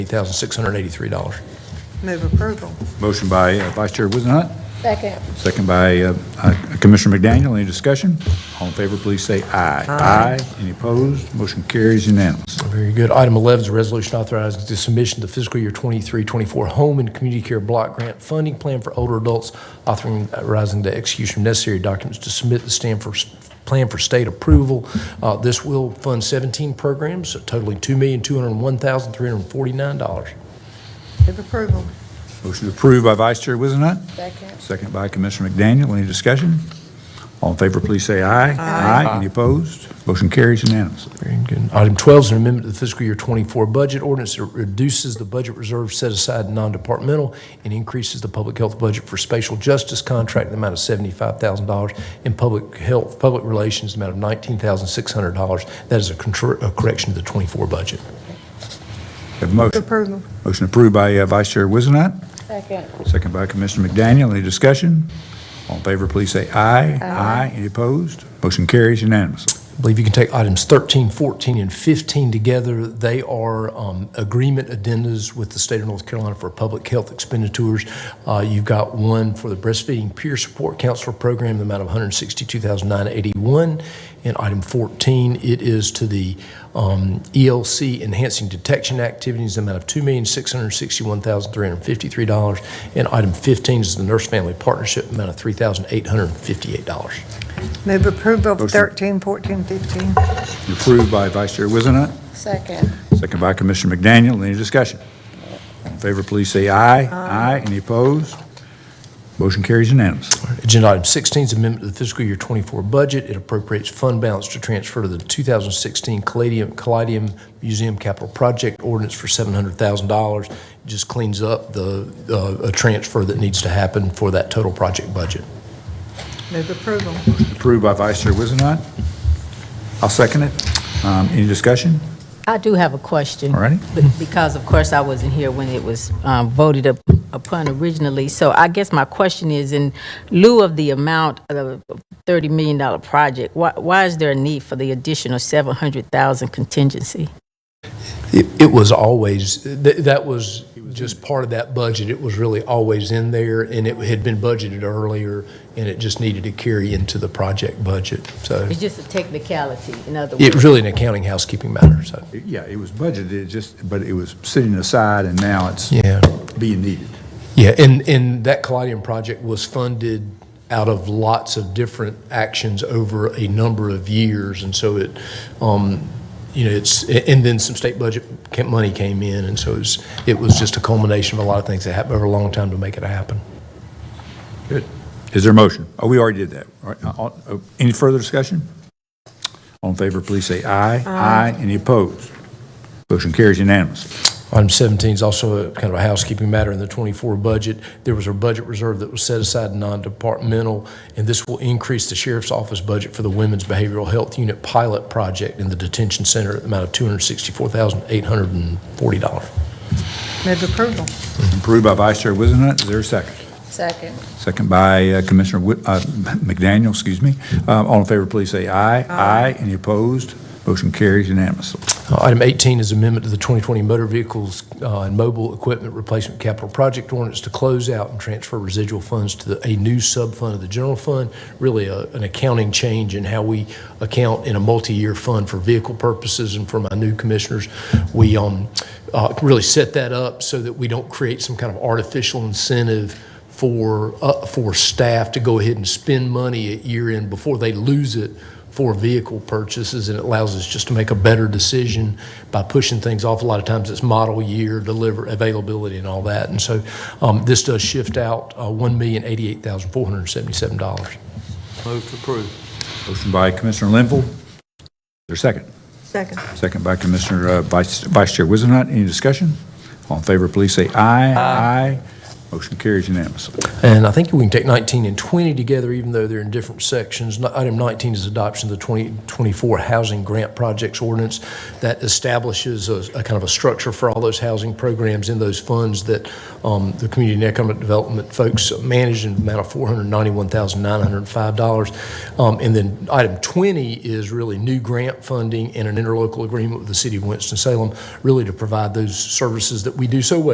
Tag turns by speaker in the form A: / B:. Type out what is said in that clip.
A: $8,683.
B: Move approval.
C: Motion by uh, Vice Chair Wizenhut,
D: Second.
C: second by uh, uh, Commissioner McDaniel. Any discussion? All in favor, please say aye. Aye. Any opposed? Motion carries unanimous.
A: Very good. Item 11 is a resolution authorizing the submission of the fiscal year 23-24 Home and Community Care Block Grant Funding Plan for Older Adults, authorizing the execution of necessary documents to submit the Stanford Plan for State approval. Uh, This will fund 17 programs totaling $2,201,349.
B: Move approval.
C: Motion approved by Vice Chair Wizenhut,
D: Second.
C: second by Commissioner McDaniel. Any discussion? All in favor, please say aye. Aye. Any opposed? Motion carries unanimously.
A: Very good. Item 12 is an amendment to the fiscal year '24 budget ordinance that reduces the budget reserve set aside in non-departmental and increases the public health budget for spatial justice contract in the amount of $75,000 and public health, public relations in the amount of $19,600. That is a contr- a correction to the '24 budget.
C: Have a motion.
B: Approval.
C: Motion approved by uh, Vice Chair Wizenhut,
D: Second.
C: second by Commissioner McDaniel. Any discussion? All in favor, please say aye. Aye. Any opposed? Motion carries unanimously.
A: I believe you can take items 13, 14, and 15 together. They are um, agreement addendas with the state of North Carolina for public health expenditures. Uh, You've got one for the breastfeeding peer support counselor program, the amount of $162,981. And item 14, it is to the um, ELC enhancing detection activities, the amount of $2,661,353. And item 15 is the nurse family partnership, amount of $3,858.
B: Move approval of
C: Motion.
B: 13, 14, 15.
C: Approved by Vice Chair Wizenhut,
D: Second.
C: second by Commissioner McDaniel. Any discussion? All in favor, please say aye. Aye. Any opposed? Motion carries unanimously.
A: Agenda item 16 is amendment to the fiscal year '24 budget. It appropriates fund balance to transfer to the 2016 Caladium- Caladium Museum Capital Project Ordinance for $700,000. It Just cleans up the, uh, a transfer that needs to happen for that total project budget.
B: Move approval.
C: Approved by Vice Chair Wizenhut. I'll second it. Um, Any discussion?
E: I do have a question.
C: All righty.
E: Be- Because, of course, I wasn't here when it was um, voted up- upon originally. So I guess my question is, in lieu of the amount of $30 million project, why- why is there a need for the additional 700,000 contingency?
A: It it was always, th- that was just part of that budget. It was really always in there, and it had been budgeted earlier, and it just needed to carry into the project budget. So
E: It's just a technicality, in other words.
A: it was really an accounting housekeeping matter, so,
C: Yeah, it was budgeted, it just, but it was sitting aside, and now it's
A: yeah.
C: being needed.
A: Yeah, and, and that Collodion project was funded out of lots of different actions over a number of years, and so it, um, you know, it's, and then some state budget ca- money came in, and so it was, it was just a culmination of a lot of things that happened over a long time to make it happen.
C: Good. Is there a motion? Oh, we already did that. All right, uh, all- uh, Any further discussion? All in favor, please say aye. Aye. Any opposed? Motion carries unanimously.
A: Item 17 is also a kind of a housekeeping matter in the '24 budget. There was a budget reserve that was set aside in non-departmental, and this will increase the sheriff's office budget for the Women's Behavioral Health Unit pilot project in the detention center at the amount of $264,840.
B: Move approval.
C: Approved by Vice Chair Wizenhut. Is there a second?
D: Second.
C: Second by uh, Commissioner Wi- uh, McDaniel, excuse me. Uh, All in favor, please say aye. Aye. Any opposed? Motion carries unanimously.
A: Uh, Item 18 is amendment to the 2020 Motor Vehicles uh, and Mobile Equipment Replacement Capital Project Ordinance to close out and transfer residual funds to the- a new sub-fund of the general fund, really a- an accounting change in how we account in a multi-year fund for vehicle purposes. And for my new commissioners, we um, uh, really set that up so that we don't create some kind of artificial incentive for, uh, for staff to go ahead and spend money at year end before they lose it for vehicle purchases, and it allows us just to make a better decision by pushing things off. A lot of times it's model year, deliver, availability, and all that. And so um, this does shift out uh, $1,088,477.
F: Move to approve.
C: Motion by Commissioner Linville. Is there a second?
B: Second.
C: Second by Commissioner uh, Vice Vice Chair Wizenhut. Any discussion? All in favor, please say aye. Aye. Motion carries unanimously.
A: And I think we can take 19 and 20 together, even though they're in different sections. No- Item 19 is adoption of the 2024 Housing Grant Projects Ordinance that establishes a a kind of a structure for all those housing programs in those funds that um, the Community and Economic Development folks manage in the amount of $491,905. Um, And then item 20 is really new grant funding and an interlocal agreement with the City of Winston-Salem, really to provide those services that we do so well.